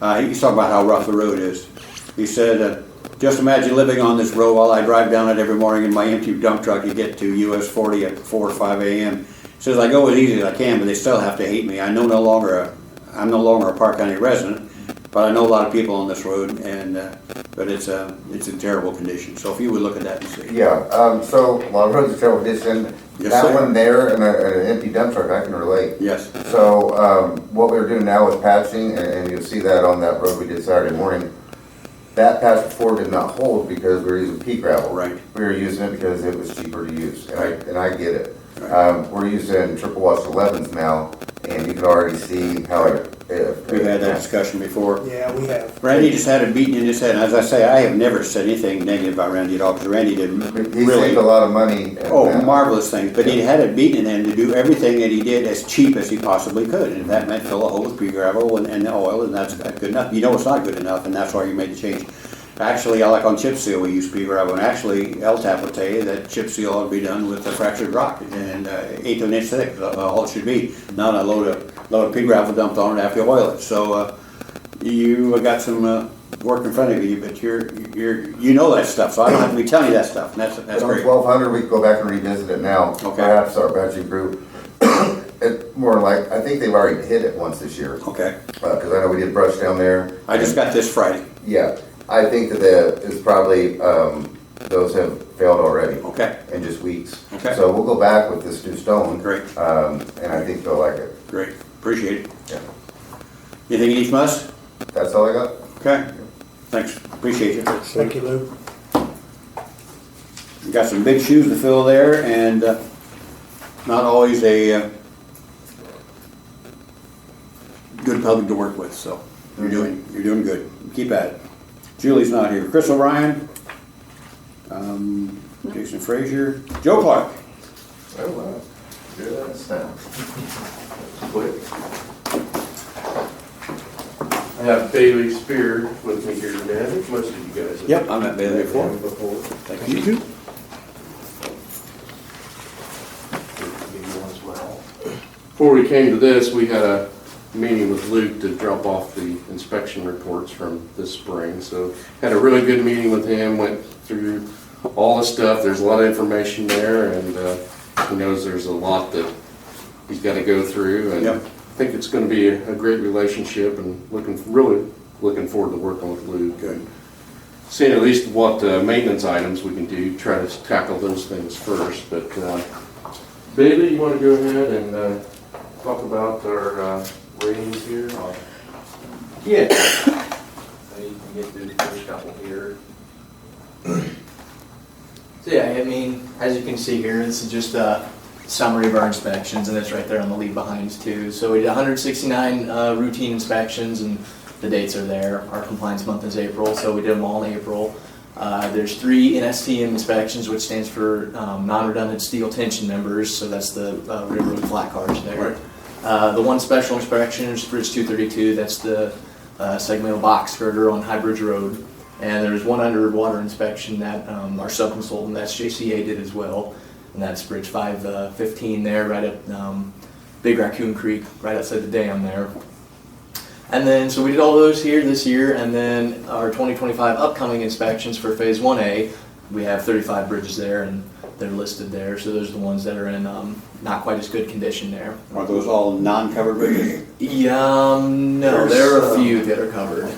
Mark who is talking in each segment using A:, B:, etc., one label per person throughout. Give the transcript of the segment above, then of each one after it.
A: Uh, he's talking about how rough the road is. He said, uh, just imagine living on this road while I drive down it every morning in my empty dump truck to get to US 40 at 4 or 5 a.m. Says I go as easy as I can, but they still have to hate me. I know no longer a, I'm no longer a Park County resident, but I know a lot of people on this road, and uh, but it's uh, it's in terrible condition. So if you would look at that and see.
B: Yeah, um, so, well, roads are terrible condition,
A: Yes,
B: that
A: sir.
B: one there and a- an empty dump truck, I can relate.
A: Yes.
B: So, um, what we were doing now with patching, and, and you'll see that on that road we did Saturday morning, that patch before did not hold because we were using pea gravel.
A: Right.
B: We were using it because it was cheaper to use, and I,
A: Right.
B: and I get it.
A: Right.
B: Um, we're using triple wash elevens now, and you can already see how it. it-
A: We've had that discussion before.
C: Yeah, we have.
A: Randy just had it beaten in his head, and as I say, I have never said anything negative about Randy at all, because Randy did
B: He saved a
A: really,
B: lot of money. and
A: oh,
B: that.
A: marvelous things, but he had it beaten in him to do everything that he did as cheap as he possibly could, and if that meant fill a hole with pea gravel and, and oil, and that's not good enough, you know it's not good enough, and that's why you made the change. Actually, I like on chip seal, we use pea gravel, and actually, LTAP would tell you that chip seal ought to be done with a fractured rock, and uh, eighth of an inch thick, uh, all it should be, not a load of, load of pea gravel dumped on it after you oil it, so, uh, you got some uh, work in front of you, but you're, you're, you know that stuff, so I don't have to be telling you that stuff, and that's, that's
B: On
A: great.
B: twelve hundred, we can go back and revisit it now.
A: Okay.
B: Perhaps our budget group, it more like, I think they've already hit it once this year,
A: Okay,
B: because I know we did brush down there.
A: I just got this Friday,
B: Yeah, I think that the, it's probably, um, those have failed already.
A: Okay.
B: In just weeks.
A: Okay.
B: So we'll go back with this new stone.
A: Great.
B: Um, and I think they'll like it.
A: great, appreciate it.
B: Yeah.
A: Anything you need from us?
B: That's all I got.
A: Okay, thanks, appreciate you.
C: Thank you, Lou.
A: You Got some big shoes to fill there, and uh, not always a uh, good public to work with, so you're doing, you're doing good, keep at it. Julie's not here, Chris O'Brien, um, Jason Frazier, Joe Clark.
B: Oh, wow. Good, that's now. Quick.
D: I have Bailey Spear with me here today. I think most of you guys. have-
A: Yep, I've met Bailey before.
D: Before.
A: Thank you.
D: Before we came to this, we had a meeting with Luke to drop off the inspection reports from this spring. So had a really good meeting with him, went through all the stuff. There's a lot of information there and uh, he knows there's a lot that he's got to go through. And I
A: Yep.
D: think it's going to be a a great relationship and looking, really looking forward to working with Luke.
A: Good.
D: seeing at least what uh, maintenance items we can do, try to tackle those things first, but uh, Bailey, you want to go ahead and uh, talk about our uh, ratings here? or-
E: Yeah. So you can get through the first couple here. So yeah, I mean, as you can see here, this is just a summary of our inspections, and it's right there on the leave behinds too. So we did 169 uh, routine inspections, and the dates are there. Our compliance month is April, so we did them all in April. Uh, There's three NSTM inspections, which stands for um, non-redundant steel tension members, so that's the uh, railroad flat cars there. Uh, The one special inspection is Bridge 232, that's the uh, segmental box girder on High Bridge Road. And there's one underwater inspection that um, our subconsultant, that's JCA, did as well. And that's Bridge 515 there, right up um, Big Raccoon Creek, right outside the dam there. And then, so we did all those here this year, and then our 2025 upcoming inspections for Phase 1A, we have 35 bridges there, and they're listed there. So those are the ones that are in um, not quite as good condition there.
A: Are those all non-covered bridges?
E: Yeah, um, no,
A: There's,
E: there are a
A: um,
E: few that are covered.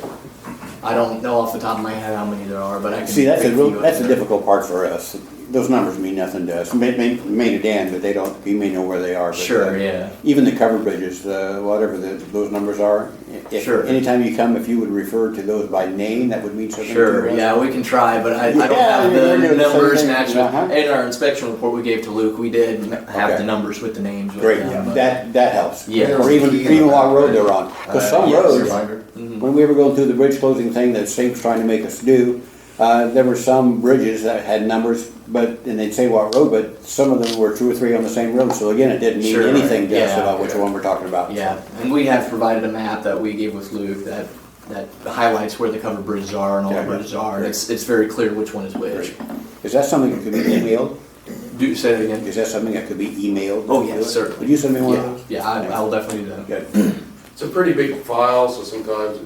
E: I don't know off the top of my head how many there are, but I can.
A: See, that's a,
E: pick
A: real-
E: few of
A: that's a
E: them.
A: difficult part for us. Those numbers mean nothing to us. May, may, may to Dan, but they don't, you may know where they are. but, uh,
E: Sure, yeah.
A: Even the covered bridges, uh, whatever the, those numbers are. if-
E: Sure.
A: Anytime you come, if you would refer to those by name, that would mean something to us.
E: Sure, yeah, we can try, but I, I don't
A: Yeah,
E: have
A: you're doing
E: the
A: the same
E: numbers
A: thing,
E: matched.
A: uh-huh.
E: In our inspection report we gave to Luke, we did have
A: Okay.
E: the numbers with the names. with
A: Great,
E: them, but-
A: that, that helps.
E: Yeah.
A: Or even, even what road they're on. Because some
E: Uh, yes.
A: roads,
B: Reminder.
E: Mm-hmm.
A: When we were going through the bridge closing thing that State's trying to make us do, uh, there were some bridges that had numbers, but, and they'd say what road, but some of them were two or three on the same road, so again, it didn't mean
E: Sure,
A: anything to us
E: yeah,
A: about which
E: yeah.
A: one we're talking about.
E: Yeah, and we have provided a map that we gave with Luke that, that highlights where the covered bridges are and all the
A: Okay.
E: bridges are. and It's, it's very clear which one is which.
A: Is that something that could be emailed?
E: Do, say it again.
A: Is that something that could be emailed?
E: Oh, yes, certainly.
A: Would you send me one of
E: Yeah,
A: those?
E: yeah, I, I will definitely do that.
A: Good.
D: It's a pretty big file, so sometimes